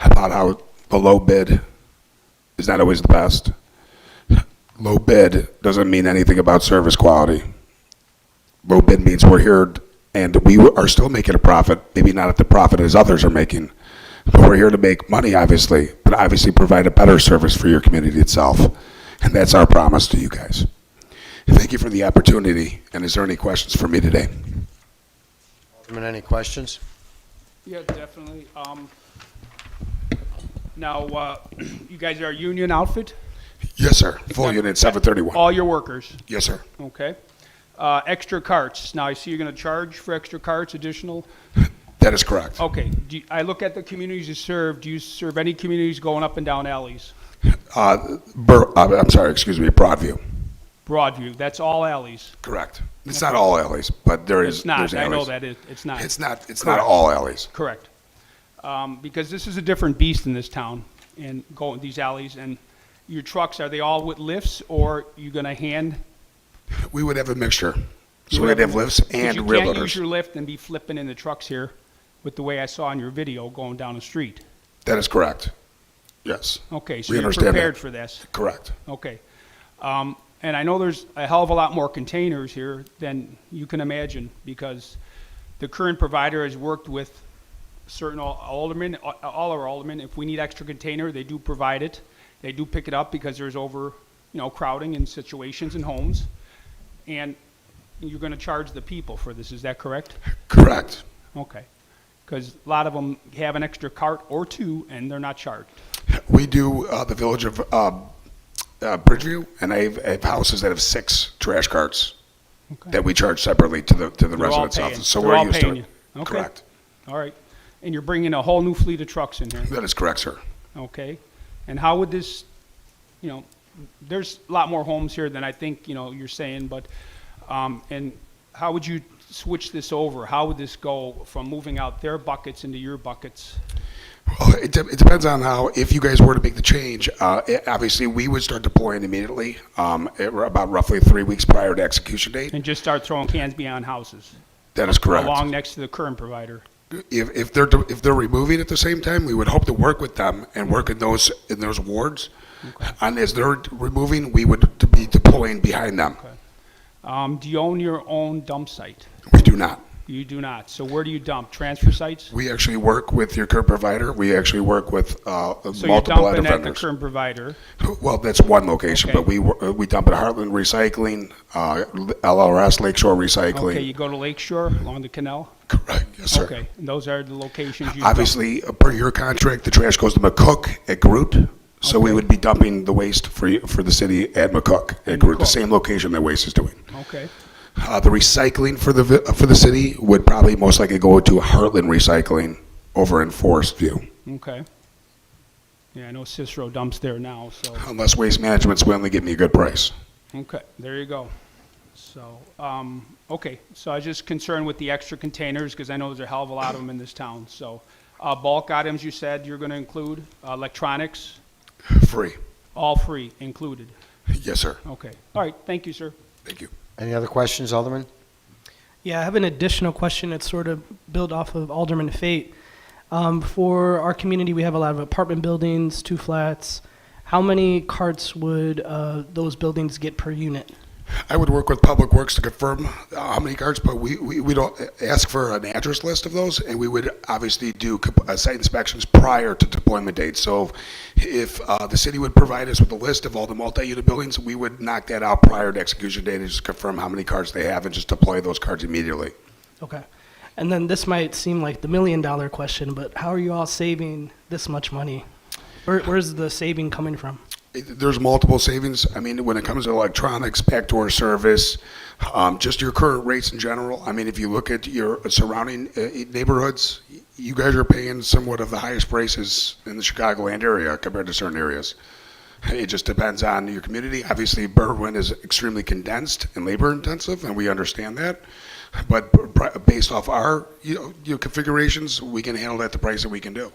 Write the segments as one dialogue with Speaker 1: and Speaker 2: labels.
Speaker 1: about how the low bid is not always the best. Low bid doesn't mean anything about service quality. Low bid means we're here and we are still making a profit, maybe not at the profit as others are making. But we're here to make money, obviously, but obviously provide a better service for your community itself. And that's our promise to you guys. Thank you for the opportunity, and is there any questions for me today?
Speaker 2: Alderman, any questions?
Speaker 3: Yeah, definitely. Um, Now, uh, you guys are a union outfit,
Speaker 1: Yes, sir. Full unit, 731.
Speaker 3: all your workers,
Speaker 1: Yes, sir.
Speaker 3: okay? Uh, Extra carts, now I see you're going to charge for extra carts, additional,
Speaker 1: That is correct.
Speaker 3: okay. do you- I look at the communities you serve, do you serve any communities going up and down alleys?
Speaker 1: Uh, Bur, uh, I'm sorry, excuse me, Broadview.
Speaker 3: Broadview, that's all alleys.
Speaker 1: Correct. It's not all alleys, but there is.
Speaker 3: It's not,
Speaker 1: there's
Speaker 3: I know
Speaker 1: alleys.
Speaker 3: that, it- it's not.
Speaker 1: It's not, it's not
Speaker 3: Correct.
Speaker 1: all alleys.
Speaker 3: Correct. Um, Because this is a different beast in this town, and going these alleys, and your trucks, are they all with lifts, or you going to hand?
Speaker 1: We would have a mixture. So
Speaker 3: You
Speaker 1: we'd
Speaker 3: would-
Speaker 1: have lifts
Speaker 3: 'Cause
Speaker 1: and rear
Speaker 3: You can't use your
Speaker 1: loaders.
Speaker 3: lift and be flipping in the trucks here with the way I saw in your video going down the street.
Speaker 1: That is correct. Yes,
Speaker 3: Okay, so
Speaker 1: We
Speaker 3: you're
Speaker 1: understand that.
Speaker 3: prepared for this.
Speaker 1: correct.
Speaker 3: Okay. Um, And I know there's a hell of a lot more containers here than you can imagine because the current provider has worked with certain al- aldermen, a- all our aldermen. If we need extra container, they do provide it. They do pick it up because there's over, you know, crowding in situations and homes. And you're going to charge the people for this, is that correct?
Speaker 1: Correct.
Speaker 3: Okay. Because a lot of them have an extra cart or two, and they're not charged.
Speaker 1: We do, uh, the village of, um, uh, Bridgeview, and I have, I have houses that have six trash carts
Speaker 3: Okay.
Speaker 1: that we charge separately to the, to the
Speaker 3: They're all
Speaker 1: residents'
Speaker 3: paying.
Speaker 1: office. So
Speaker 3: They're
Speaker 1: we're
Speaker 3: all
Speaker 1: used to
Speaker 3: paying
Speaker 1: it.
Speaker 3: you. Okay.
Speaker 1: Correct.
Speaker 3: All right. And you're bringing a whole new fleet of trucks in here,
Speaker 1: That is correct, sir.
Speaker 3: okay? And how would this, you know, there's a lot more homes here than I think, you know, you're saying, but, um, and how would you switch this over? How would this go from moving out their buckets into your buckets?
Speaker 1: Well, Oh, it, de- it depends on how, if you guys were to make the change, uh, it- obviously, we would start deploying immediately, um, at r- about roughly three weeks prior to execution date.
Speaker 3: And just start throwing cans beyond houses?
Speaker 1: That is correct.
Speaker 3: Along next to the current provider?
Speaker 1: If, if they're, de- if they're removing at the same time, we would hope to work with them and work in those, in those wards. And as they're removing, we would to be deploying behind them.
Speaker 3: Um, do you own your own dump site?
Speaker 1: We do not.
Speaker 3: You do not. So where do you dump? Transfer sites?
Speaker 1: We actually work with your current provider. We actually work with, uh,
Speaker 3: So you're
Speaker 1: multiple other
Speaker 3: dumping at the
Speaker 1: vendors.
Speaker 3: current provider.
Speaker 1: Well, that's one location,
Speaker 3: Okay.
Speaker 1: but we, wor- uh, we dump at Heartland Recycling, uh, LRS Lakeshore Recycling.
Speaker 3: Okay, you go to Lake Shore along the canal?
Speaker 1: Correct, yes, sir.
Speaker 3: Okay, and those are the locations you dump?
Speaker 1: Obviously, uh, per your contract, the trash goes to McCook at Groot, so we
Speaker 3: Okay.
Speaker 1: would be dumping the waste for, you- for the city at McCook, at
Speaker 3: At
Speaker 1: Groot, the
Speaker 3: McCook.
Speaker 1: same location that waste is doing.
Speaker 3: Okay,
Speaker 1: Uh, the recycling for the, vi- uh, for the city would probably most likely go to Heartland Recycling over in Forest View,
Speaker 3: okay. Yeah, I know Cicero dumps there now, so,
Speaker 1: unless Waste Management's willing to give me a good price.
Speaker 3: okay, there you go. So, um, okay, so I was just concerned with the extra containers, because I know there's a hell of a lot of them in this town, so. Uh, bulk items you said you're gonna include, uh, electronics,
Speaker 1: Free.
Speaker 3: all free included.
Speaker 1: Yes, sir.
Speaker 3: Okay, all right, thank you, sir.
Speaker 1: Thank you.
Speaker 2: Any other questions, Alderman?
Speaker 4: Yeah, I have an additional question that's sort of built off of Alderman Fate. Um, for our community, we have a lot of apartment buildings, two flats. How many carts would uh, those buildings get per unit?
Speaker 1: I would work with Public Works to confirm uh, how many carts, but we, we, we don't ask for an address list of those, and we would obviously do comp- uh, site inspections prior to deployment date. So if uh, the city would provide us with a list of all the multi-unit buildings, we would knock that out prior to execution date and just confirm how many carts they have and just deploy those carts immediately.
Speaker 4: Okay. And then this might seem like the million dollar question, but how are you all saving this much money? Where, where's the saving coming from?
Speaker 1: It- There's multiple savings. I mean, when it comes to electronics, backdoor service, um, just your current rates in general. I mean, if you look at your surrounding uh, neighborhoods, y- you guys are paying somewhat of the highest prices in the Chicagoland area compared to certain areas. It just depends on your community. Obviously, Berwyn is extremely condensed and labor intensive, and we understand that. But b- b- based off our, you know, you know, configurations, we can handle that the price that we can do.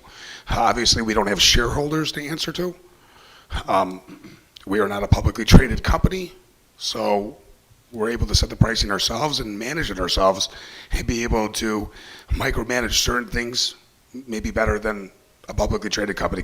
Speaker 1: Obviously, we don't have shareholders to answer to. Um, We are not a publicly traded company, so we're able to set the pricing ourselves and manage it ourselves and be able to micromanage certain things maybe better than a publicly traded company